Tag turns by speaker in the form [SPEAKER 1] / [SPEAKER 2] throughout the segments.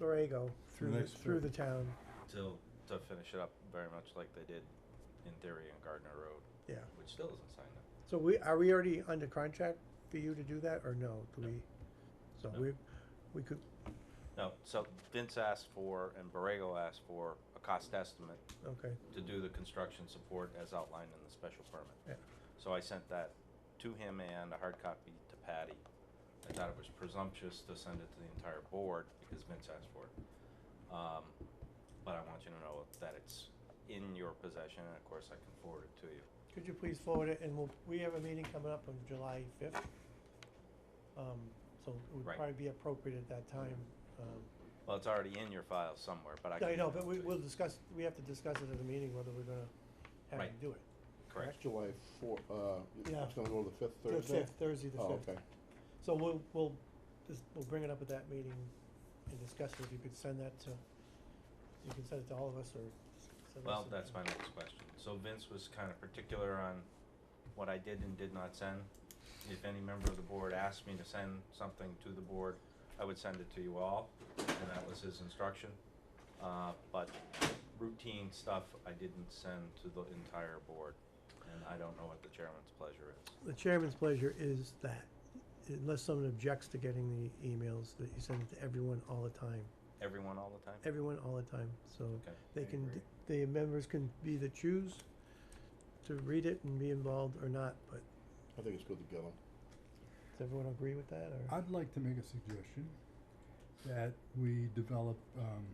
[SPEAKER 1] Borrego through, the-
[SPEAKER 2] Nice.
[SPEAKER 1] through the town,
[SPEAKER 3] to, to finish it up very much like they did in theory in Gardner Road,
[SPEAKER 1] yeah.
[SPEAKER 3] which still isn't signed up.
[SPEAKER 1] So we, are we already under contract for you to do that, or no, do
[SPEAKER 3] No.
[SPEAKER 1] we? So
[SPEAKER 3] No.
[SPEAKER 1] we, we could,
[SPEAKER 3] No, so Vince asked for, and Borrego asked for, a cost estimate
[SPEAKER 1] okay,
[SPEAKER 3] to do the construction support as outlined in the special permit.
[SPEAKER 1] yeah,
[SPEAKER 3] So I sent that to him and a hard copy to Patty. I thought it was presumptuous to send it to the entire board because Vince asked for it. Um, but I want you to know that it's in your possession and of course I can forward it to you.
[SPEAKER 1] could you please forward it, and we'll, we have a meeting coming up on July fifth. Um, so it would
[SPEAKER 3] Right.
[SPEAKER 1] probably be appropriate at that time, um,
[SPEAKER 3] Well, it's already in your file somewhere, but I can.
[SPEAKER 1] I know,
[SPEAKER 3] email
[SPEAKER 1] but
[SPEAKER 3] it
[SPEAKER 1] we,
[SPEAKER 3] to you.
[SPEAKER 1] we'll discuss, we have to discuss it at the meeting, whether we're gonna have
[SPEAKER 3] Right.
[SPEAKER 1] to do it.
[SPEAKER 3] Correct.
[SPEAKER 2] That's July four, uh,
[SPEAKER 1] Yeah.
[SPEAKER 2] it's gonna go to the fifth
[SPEAKER 1] The
[SPEAKER 2] Thursday?
[SPEAKER 1] fifth, Thursday the
[SPEAKER 2] Oh,
[SPEAKER 1] fifth.
[SPEAKER 2] okay.
[SPEAKER 1] So we'll, we'll, just, we'll bring it up at that meeting and discuss it, if you could send that to, you can send it to all of us, or s- send us.
[SPEAKER 3] Well,
[SPEAKER 1] an
[SPEAKER 3] that's my
[SPEAKER 1] email.
[SPEAKER 3] next question. So Vince was kind of particular on what I did and did not send. If any member of the board asked me to send something to the board, I would send it to you all, and that was his instruction. Uh, but routine stuff I didn't send to the entire board, and I don't know what the chairman's pleasure is.
[SPEAKER 1] The chairman's pleasure is that, unless someone objects to getting the emails, that you send it to everyone all the time,
[SPEAKER 3] Everyone all the time?
[SPEAKER 1] everyone all the time, so.
[SPEAKER 3] Okay.
[SPEAKER 1] They
[SPEAKER 3] I
[SPEAKER 1] can,
[SPEAKER 3] agree.
[SPEAKER 1] d- the members can be the choose to read it and be involved or not, but
[SPEAKER 2] I think it's good to get them.
[SPEAKER 1] does everyone agree with that, or?
[SPEAKER 4] I'd like to make a suggestion that we develop, um,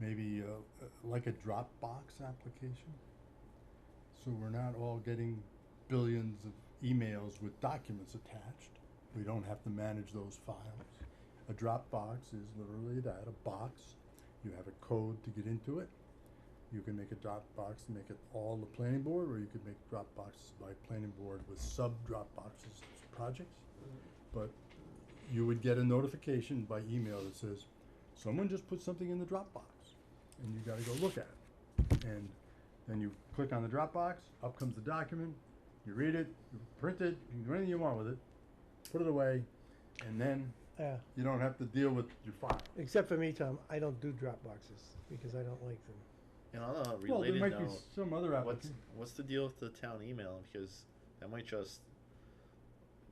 [SPEAKER 4] maybe, uh, uh, like a Dropbox application. So we're not all getting billions of emails with documents attached. We don't have to manage those files. A Dropbox is literally that, a box. You have a code to get into it. You can make a Dropbox, make it all the planning board, or you could make Dropboxes by planning board with sub Dropboxes projects but you would get a notification by email that says, someone just put something in the Dropbox, and you gotta go look at it. And then you click on the Dropbox, up comes the document, you read it, you print it, you can do anything you want with it, put it away, and then
[SPEAKER 1] Yeah,
[SPEAKER 4] you don't have to deal with your file.
[SPEAKER 1] except for me, Tom, I don't do drop boxes, because I don't like them.
[SPEAKER 5] And on a
[SPEAKER 4] Well, there
[SPEAKER 5] related
[SPEAKER 4] might be
[SPEAKER 5] note,
[SPEAKER 4] some other
[SPEAKER 5] what's
[SPEAKER 4] application.
[SPEAKER 5] what's the deal with the town email? Because that might just,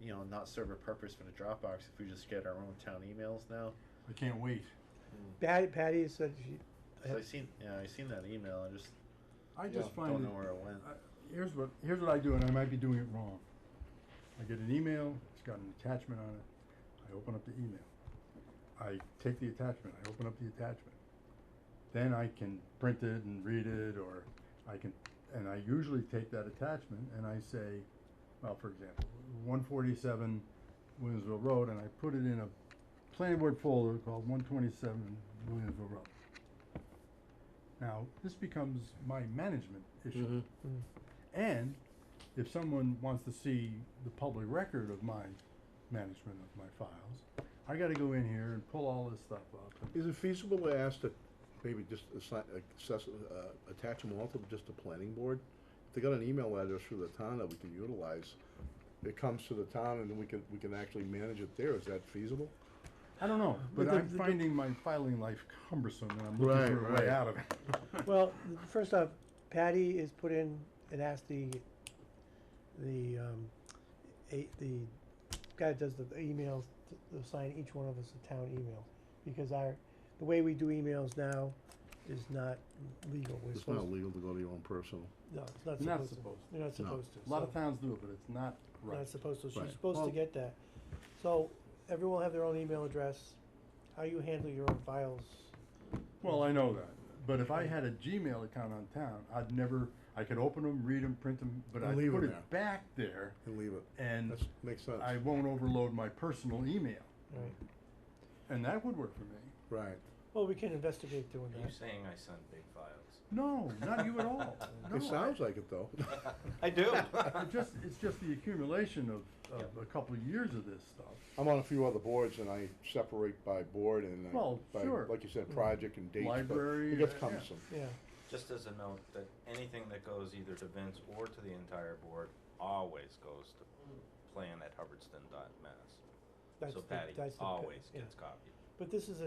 [SPEAKER 5] you know, not serve a purpose for the Dropbox if we just get our own town emails now.
[SPEAKER 4] I can't wait.
[SPEAKER 1] Patty, Patty said she, I
[SPEAKER 5] So I
[SPEAKER 1] have-
[SPEAKER 5] seen, yeah, I seen that email. I just
[SPEAKER 4] I just
[SPEAKER 2] Yeah,
[SPEAKER 4] find
[SPEAKER 5] don't
[SPEAKER 4] it-
[SPEAKER 5] know where it went.
[SPEAKER 4] I- Here's what, here's what I do, and I might be doing it wrong. I get an email, it's got an attachment on it, I open up the email. I take the attachment, I open up the attachment. Then I can print it and read it, or I can, and I usually take that attachment and I say, well, for example, one forty-seven Williamsville Road, and I put it in a planning board folder called one twenty-seven Williamsville Road. Now, this becomes my management issue. And if someone wants to see the public record of my management of my files, I gotta go in here and pull all this stuff up. and-
[SPEAKER 2] Is it feasible to ask that maybe just assign, access, uh, attach them all to just the planning board? If they got an email address for the town that we can utilize, it comes to the town and then we can, we can actually manage it there, is that feasible?
[SPEAKER 4] I don't know, but
[SPEAKER 1] But the-
[SPEAKER 4] I'm
[SPEAKER 1] the-
[SPEAKER 4] finding my filing life cumbersome and I'm looking
[SPEAKER 2] Right,
[SPEAKER 4] for a
[SPEAKER 2] right.
[SPEAKER 4] way out of it.
[SPEAKER 1] well, th- first off, Patty is put in and asked the, the, um, a, the guy that does the emails, to to assign each one of us a town email, because our, the way we do emails now is not legal, we're
[SPEAKER 2] It's not
[SPEAKER 1] supposed,
[SPEAKER 2] legal to go to your own personal.
[SPEAKER 1] no, it's not supposed to.
[SPEAKER 4] Not supposed
[SPEAKER 1] You're not
[SPEAKER 2] No.
[SPEAKER 1] supposed to.
[SPEAKER 4] A lot of
[SPEAKER 1] so-
[SPEAKER 4] towns do it, but it's not
[SPEAKER 1] You're
[SPEAKER 4] right.
[SPEAKER 1] Not supposed to, she's
[SPEAKER 2] Right.
[SPEAKER 1] supposed to
[SPEAKER 4] Well-
[SPEAKER 1] get that. So, everyone will have their own email address, how you handle your own files
[SPEAKER 4] Well, I know that, but if I had a Gmail account on town, I'd never, I could open them, read them, print them, but
[SPEAKER 2] And
[SPEAKER 4] I'd
[SPEAKER 2] leave
[SPEAKER 4] put
[SPEAKER 2] 'em there.
[SPEAKER 4] it back there
[SPEAKER 2] And leave it.
[SPEAKER 4] and
[SPEAKER 2] That makes sense.
[SPEAKER 4] I won't overload my personal email.
[SPEAKER 1] Right.
[SPEAKER 4] And that would work for me.
[SPEAKER 2] Right.
[SPEAKER 1] Well, we can investigate doing
[SPEAKER 3] Are you
[SPEAKER 1] that.
[SPEAKER 3] saying I send big files?
[SPEAKER 4] No, not you at all. No,
[SPEAKER 2] It sounds like it though.
[SPEAKER 3] I do.
[SPEAKER 4] I- it just, it's just the accumulation of, of a couple of years of this stuff.
[SPEAKER 2] I'm on a few other boards and I separate by board and I-
[SPEAKER 4] Well,
[SPEAKER 2] by,
[SPEAKER 4] sure.
[SPEAKER 2] like you said, project and dates. but
[SPEAKER 4] Library,
[SPEAKER 2] It
[SPEAKER 4] uh,
[SPEAKER 2] gets
[SPEAKER 4] yeah.
[SPEAKER 2] cumbersome.
[SPEAKER 1] Yeah,
[SPEAKER 3] Just as a note, that anything that goes either to Vince or to the entire board always goes to plan at hubbardston.mass.
[SPEAKER 1] that's
[SPEAKER 3] So
[SPEAKER 1] the,
[SPEAKER 3] Patty
[SPEAKER 1] that's the.
[SPEAKER 3] always
[SPEAKER 1] yeah.
[SPEAKER 3] gets copied.
[SPEAKER 1] But this is a